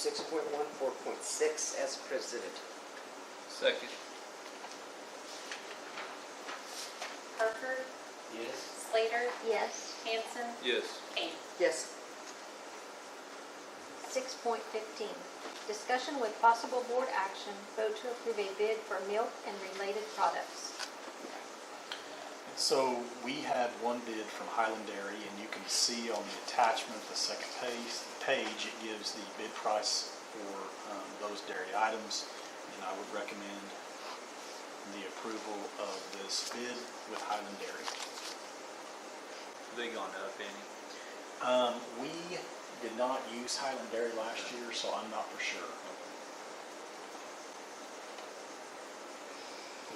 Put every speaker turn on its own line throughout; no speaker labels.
Six point one, four point six, as presented.
Second.
Parker,
Yes.
Slater,
Yes.
Hanson,
Yes.
Kane.
Yes.
6.15, discussion with possible board action, vote to approve a bid for milk and related products.
So we had one bid from Highland Dairy, and you can see on the attachment, the second page, page, it gives the bid price for um, those dairy items. And I would recommend the approval of this bid with Highland Dairy.
Have They gone up any?
Um, we did not use Highland Dairy last year, so I'm not for sure.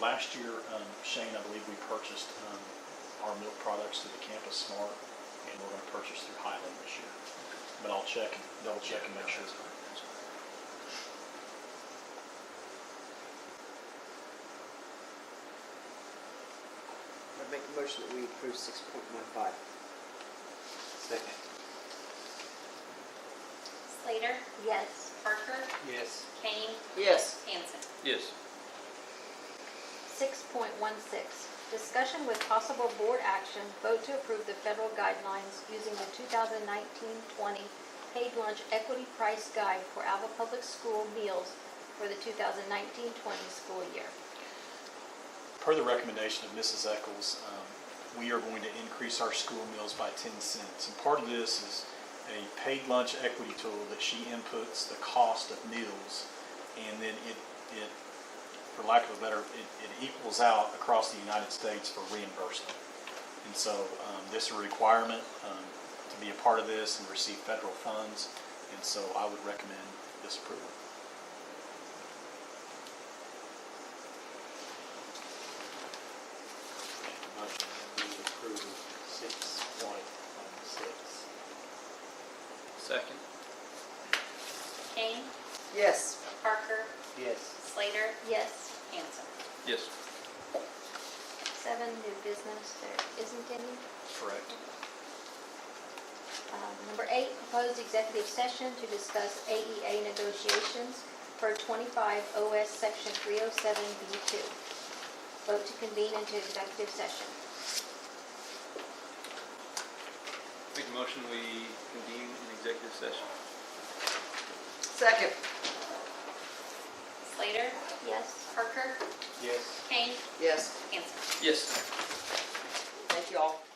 Last year, um, Shane, I believe we purchased, um, our milk products through the Campus Smart, and we're gonna purchase through Highland this year. But I'll check, and double check and make sure.
No, that's fine, that's fine.
I make a motion that we approve six point one five.
Second.
Slater,
Yes.
Parker,
Yes.
Kane,
Yes.
Hanson.
Yes.
6.16, discussion with possible board action, vote to approve the federal guidelines using the 2019-20 paid lunch equity price guide for Alva Public School meals for the 2019-20 school year.
Per the recommendation of Mrs. Eccles, um, we are going to increase our school meals by 10 cents. And part of this is a paid lunch equity tool that she inputs the cost of meals, and then it, it, for lack of a better, it it equals out across the United States for reimbursement. And so um, this is a requirement um, to be a part of this and receive federal funds, and so I would recommend this approval.
Motion that we approve six point one six.
Second.
Kane,
Yes.
Parker,
Yes.
Slater,
Yes.
Hanson.
Yes.
Seven, new business, there isn't any.
Correct.
Um, Number eight, proposed executive session to discuss AEA negotiations per 25 OS Section 307B2. Vote to convene into executive session.
Make a motion, we convene an executive session.
Second.
Slater,
Yes?
Parker,
Yes.
Kane,
Yes.
Hanson.
Yes.
Thank you all.